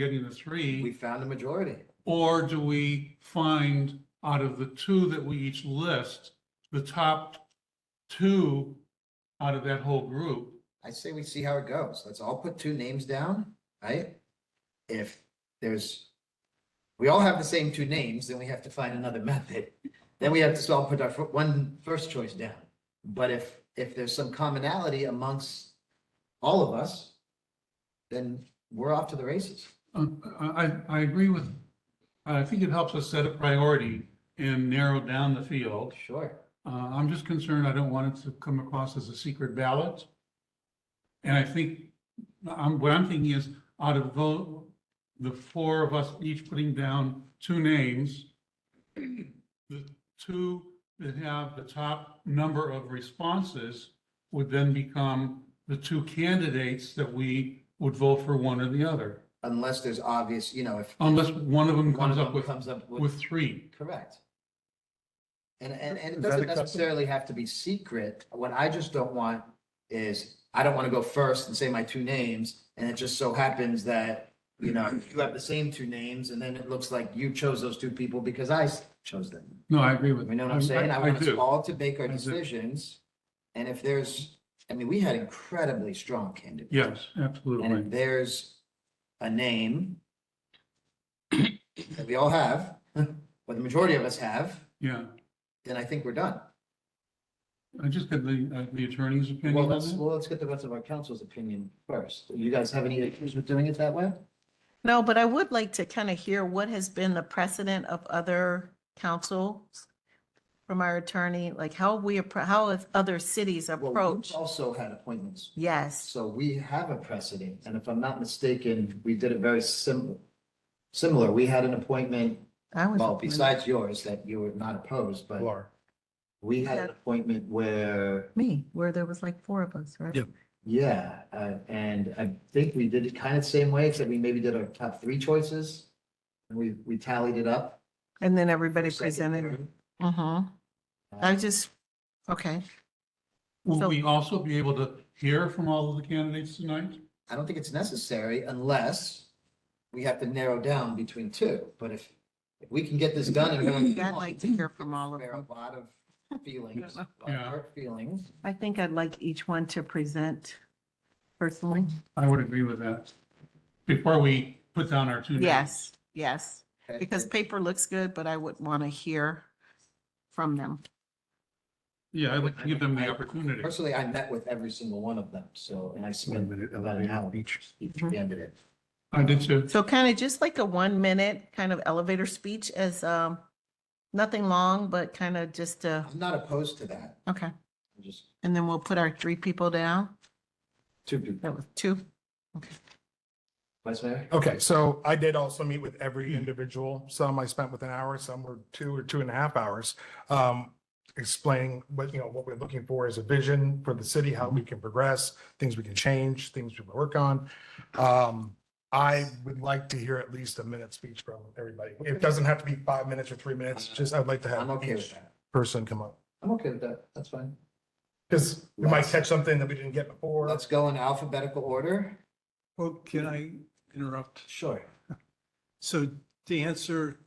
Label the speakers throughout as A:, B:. A: getting the
B: We
A: three?
B: found a majority.
A: Or do we find out of the two that we each list, the top two out of that whole group?
B: I say we see how it goes. Let's all put two names down, right? If there's, we all have the same two names, then we have to find another method. Then we have to all put our fir- one first choice down. But if, if there's some commonality amongst all of us, then we're off to the races.
A: Uh, I, I- I agree with, I think it helps us set a priority and narrow down the field.
B: Sure.
A: Uh, I'm just concerned I don't want it to come across as a secret ballot. And I think, I'm, what I'm thinking is, out of the, the four of us each putting down two names, the two that have the top number of responses would then become the two candidates that we would vote for one or the other,
B: Unless there's obvious, you know, if
A: unless one of them
B: one
A: comes up
B: of them
A: with,
B: comes up with
A: with three.
B: Correct. And, and, and it
C: Is that
B: doesn't
C: acceptable?
B: necessarily have to be secret. What I just don't want is, I don't want to go first and say my two names, and it just so happens that, you know, you have the same two names, and then it looks like you chose those two people because I s- chose them.
A: No, I agree with.
B: You know what I'm saying? I
A: I
B: want us
A: do.
B: all to make our
A: I do.
B: decisions, and if there's, I mean, we had incredibly strong candidates.
A: Yes,
B: And
A: absolutely.
B: if there's a name that we all have, or the majority of us have,
A: Yeah.
B: then I think we're done.
A: I just got the, uh, the attorney's opinion
B: Well,
A: on
B: let's,
A: that.
B: well, let's get the rest of our council's opinion first. You guys have any issues with doing it that way?
D: No, but I would like to kind of hear what has been the precedent of other councils from our attorney, like how we, appro- how if other cities
B: Well,
D: approach.
B: we've Also had appointments,
D: Yes,
B: so we have a precedent, and if I'm not mistaken, we did it very similar. Similar, we had an appointment,
D: I was.
B: well, besides yours, that you were not opposed, but
C: Laura.
B: we had an appointment where
D: Me, where there was like four of us, right?
C: Yeah.
B: Yeah, uh, and I think we did it kind of the same way, except we maybe did our top three choices. And we, we tallied it up.
D: And then everybody
B: Second,
D: presented.
B: third.
D: Mm-hmm. I just, okay,
A: Will
D: so-
A: we also be able to hear from all of the candidates tonight?
B: I don't think it's necessary unless we have to narrow down between two, but if, if we can get this done and. we're-
D: I'd like to hear from all of
B: There are
D: them.
B: A lot of feelings, a lot of
A: Yeah.
B: hurt feelings.
D: I think I'd like each one to present personally.
A: I would agree with that. Before we put down our two names.
D: Yes, yes,
B: okay?
D: because paper looks good, but I would want to hear from them.
A: Yeah, I'd like to give them the
B: I-
A: opportunity.
B: Personally, I met with every single one of them, so, and I spent about an hour each candidate.
A: I did too.
D: So kind of just like a one minute kind of elevator speech as, um, nothing long, but kind of just a,
B: I'm not opposed to that,
D: okay.
B: I'm just
D: And then we'll put our three people down.
B: two people.
D: That was two.
B: Vice Mayor?
C: Okay, so I did also meet with every individual. Some I spent with an hour, some were two or two and a half hours. Um, explaining what, you know, what we're looking for as a vision for the city, how
B: Mm-hmm.
C: we can progress, things we can change, things we can work on. Um, I would like to hear at least a minute speech from everybody. It doesn't have to be five minutes or three minutes, just I'd like to
B: I'm
C: have
B: okay with
C: each
B: that.
C: person come up.
B: I'm okay with that, that's fine.
C: Because we might catch something that we didn't get before.
B: Let's go in alphabetical order.
E: Well, can I interrupt?
B: Sure.
E: So to answer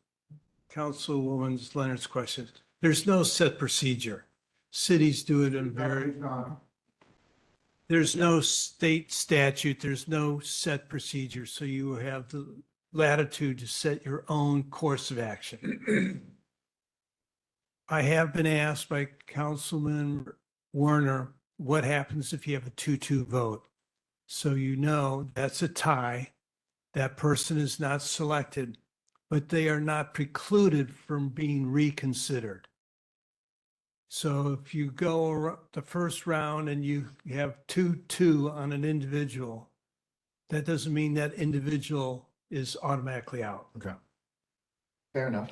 E: Councilwoman Leonard's question, there's no set procedure. Cities do it in very, there's no state statute, there's no set procedure. So you have the latitude to set your own course of action. I have been asked by Councilman Werner, what happens if you have a two-two vote? So you know that's a tie. That person is not selected, but they are not precluded from being reconsidered. So if you go ar- the first round and you have two, two on an individual, that doesn't mean that individual is automatically out.
C: Okay.
B: Fair enough.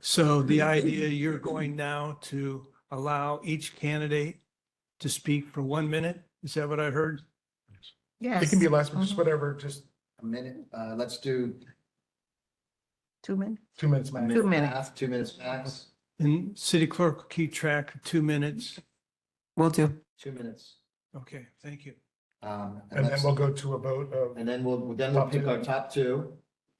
E: So the idea you're going now to allow each candidate to speak for one minute? Is that what I heard?
D: Yes.
C: It can be less, but
B: Mm-hmm.
C: just whatever, just
B: A minute, uh, let's do
D: Two minutes.
C: two minutes
B: a
C: max.
B: minute and a
D: minutes.
B: half, two minutes max,
E: And city clerk will keep track of two minutes.
D: Will do.
B: two minutes.
E: Okay, thank you.
B: Um,
C: And then
B: let's-
C: we'll go to a vote of,
B: And then we'll, then we'll
C: Top two.
B: pick our top two.